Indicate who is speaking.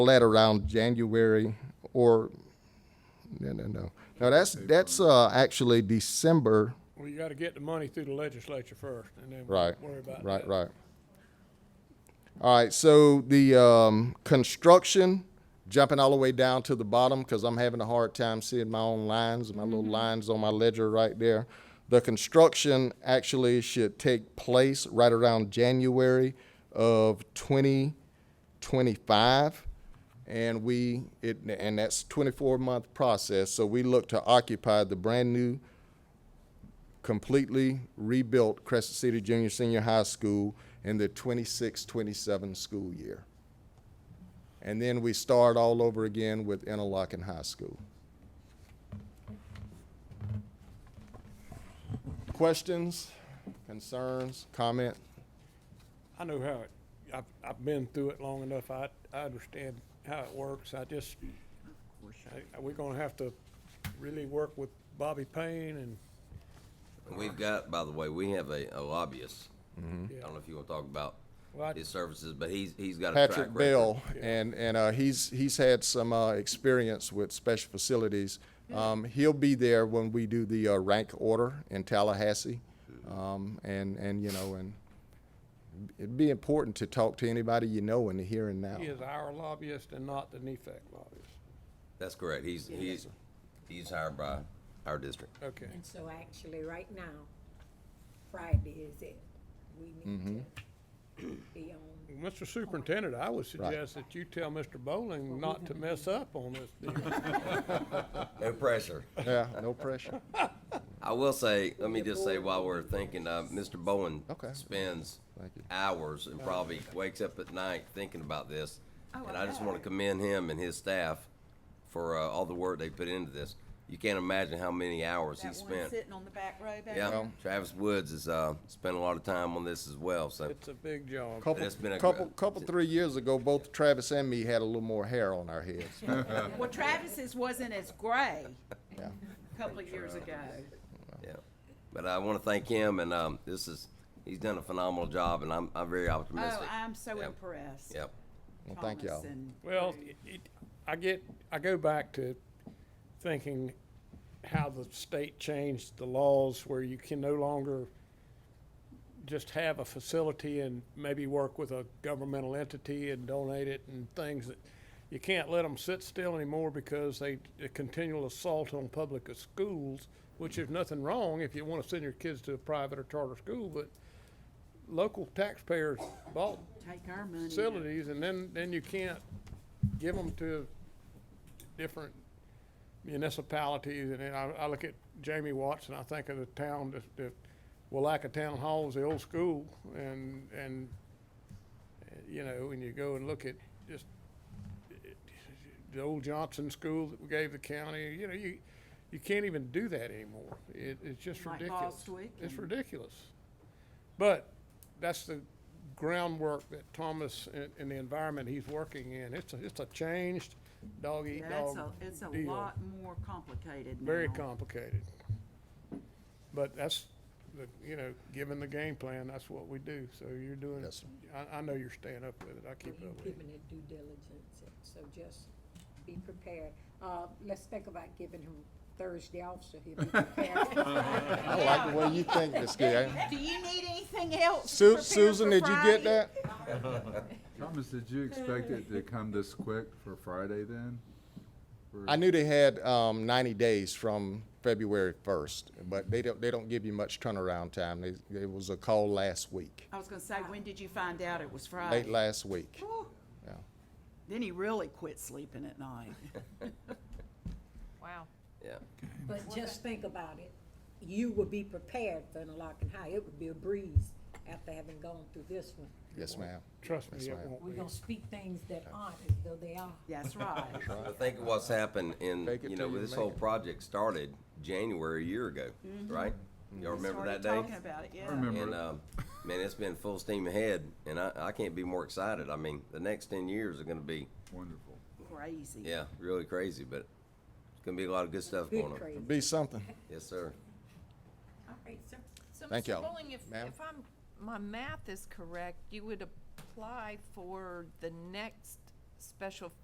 Speaker 1: that around January or, no, no, no. No, that's, that's, uh, actually December,
Speaker 2: Well, you gotta get the money through the legislature first, and then
Speaker 1: right,
Speaker 2: worry about that.
Speaker 1: right, right. All right, so the, um, construction, jumping all the way down to the bottom, cause I'm having a hard time seeing my own lines, my little lines on my ledger right there. The construction actually should take place right around January of twenty 25 and we it and that's 24 month process so we look to occupy the brand new completely rebuilt crescent city junior senior high school in the 26-27 school year and then we start all over again with interlochen high school questions concerns comment
Speaker 2: I know how it, I've, I've been through it long enough, I, I understand how it works, I just, I- we're gonna have to really work with Bobby Payne and,
Speaker 3: We've got, by the way, we have a, a lobbyist.
Speaker 1: Mm-hmm.
Speaker 3: I
Speaker 2: yeah,
Speaker 3: don't know if you want to talk about
Speaker 2: Well, I-
Speaker 3: his services, but he's he's got a track
Speaker 1: Patrick
Speaker 3: record.
Speaker 1: Bell, and and uh, he's he's had some uh, experience with special facilities.
Speaker 3: Mm.
Speaker 1: Um, he'll be there when we do the uh, rank order in Tallahassee, um, and and you know and it'd be important to talk to anybody you know in the here and now.
Speaker 2: he is our lobbyist and not the E NEFAC lobbyist.
Speaker 3: That's correct. He's he's he's hired by our district.
Speaker 2: Okay,
Speaker 4: And so actually, right now, Friday is it. We need to be on.
Speaker 2: Mr. Superintendent, I would suggest that you tell Mr. Bowling not to mess up on this deal.
Speaker 3: No pressure.
Speaker 1: Yeah, no pressure.
Speaker 3: I will say, let me just say while we're thinking, uh, Mr. Bowen
Speaker 1: Okay.
Speaker 3: spends
Speaker 1: Thank you.
Speaker 3: hours and probably wakes up at night thinking about this.
Speaker 5: Oh,
Speaker 3: And I just want to commend him and his staff for uh, all the work they put into this. You can't imagine how many hours he
Speaker 5: That one
Speaker 3: spent.
Speaker 5: sitting on the back row back
Speaker 3: Yeah,
Speaker 5: there.
Speaker 3: Travis Woods has uh, spent a lot of time on this as well. So
Speaker 2: It's a big job.
Speaker 1: Couple,
Speaker 3: It's been a gr-
Speaker 1: couple, couple, three years ago, both Travis and me had a little more hair on our heads.
Speaker 5: Well, Travis's wasn't as gray
Speaker 1: Yeah.
Speaker 5: a couple of years ago.
Speaker 3: Yeah, but I want to thank him, and um, this is he's done a phenomenal job, and I'm I'm very
Speaker 5: Oh,
Speaker 3: optimistic.
Speaker 5: I'm so
Speaker 3: Yep.
Speaker 5: impressed.
Speaker 3: Yep.
Speaker 1: Well, thank
Speaker 5: Thomas
Speaker 1: y'all.
Speaker 5: and-
Speaker 2: Well, it, I get, I go back to thinking how the state changed the laws where you can no longer just have a facility and maybe work with a governmental entity and donate it and things that you can't let them sit still anymore because they, a continual assault on public schools, which is nothing wrong if you want to send your kids to a private or charter school, but local taxpayers bought
Speaker 5: Take our money.
Speaker 2: facilities, and then, then you can't give them to different municipalities, and then I, I look at Jamie Watts, and I think of the town, that the Willaca Town Hall is the old school, and, and, uh, you know, when you go and look at just it- the old Johnson School that we gave the county, you know, you, you can't even do that anymore, it, it's just
Speaker 5: Like
Speaker 2: ridiculous.
Speaker 5: Bostwick
Speaker 2: It's
Speaker 5: and-
Speaker 2: ridiculous. But that's the groundwork that Thomas and, and the environment he's working in. It's a, it's a changed dog eat
Speaker 5: That's
Speaker 2: dog
Speaker 5: a, it's a
Speaker 2: deal.
Speaker 5: lot more complicated now.
Speaker 2: Very complicated. But that's, the you know, given the game plan, that's what we do. So you're doing,
Speaker 1: Yes, sir.
Speaker 2: I, I know you're staying up with it. I keep
Speaker 4: You've
Speaker 2: up with it.
Speaker 4: given it due diligence, so just be prepared. Uh, let's think about giving him Thursday off so he'll be prepared.
Speaker 1: I like the way you think, Miss Gay.
Speaker 5: Do you need anything else?
Speaker 1: Su-
Speaker 5: prepared
Speaker 1: Susan,
Speaker 5: for
Speaker 1: did you get
Speaker 5: Friday?
Speaker 1: that?
Speaker 6: Thomas, did you expect it to come this quick for Friday then? Or-
Speaker 1: I knew they had um, 90 days from February 1st, but they don't they don't give you much turnaround time. They, it was a call last week,
Speaker 5: I was gonna say, when did you find out it was
Speaker 1: late
Speaker 5: Friday?
Speaker 1: last week. Yeah.
Speaker 5: Then he really quit sleeping at night.
Speaker 7: Wow.
Speaker 3: Yeah.
Speaker 4: But just think about it. You will be prepared for Interlochen High. It would be a breeze after having gone through this one.
Speaker 1: Yes, ma'am.
Speaker 2: Trust me,
Speaker 1: Yes,
Speaker 2: it
Speaker 1: ma'am.
Speaker 2: won't
Speaker 4: We're
Speaker 2: be.
Speaker 4: gonna speak things that aren't as though they are.
Speaker 5: That's right.
Speaker 3: I think of what's happened in
Speaker 1: Fake it
Speaker 3: you know
Speaker 1: till you
Speaker 3: this
Speaker 1: make
Speaker 3: whole
Speaker 1: it.
Speaker 3: project started January a year ago, right?
Speaker 1: Mm-hmm.
Speaker 3: Y'all remember
Speaker 5: Mm-hmm. Started
Speaker 3: that day?
Speaker 5: Talking about it, yeah.
Speaker 6: remember.
Speaker 3: And um, man, it's been full steam ahead, and I, I can't be more excited. I mean, the next ten years are going to be
Speaker 6: Wonderful.
Speaker 5: Crazy.
Speaker 3: yeah really crazy, but it's going to be a lot of good stuff going
Speaker 4: Good
Speaker 3: on.
Speaker 4: crazy.
Speaker 1: Be something.
Speaker 3: Yes, sir.
Speaker 4: All right, sir.
Speaker 7: So,
Speaker 1: Thank
Speaker 7: Mr.
Speaker 1: y'all.
Speaker 7: Bowling, if,
Speaker 1: Ma'am?
Speaker 7: if I'm, my math is correct, you would apply for the next special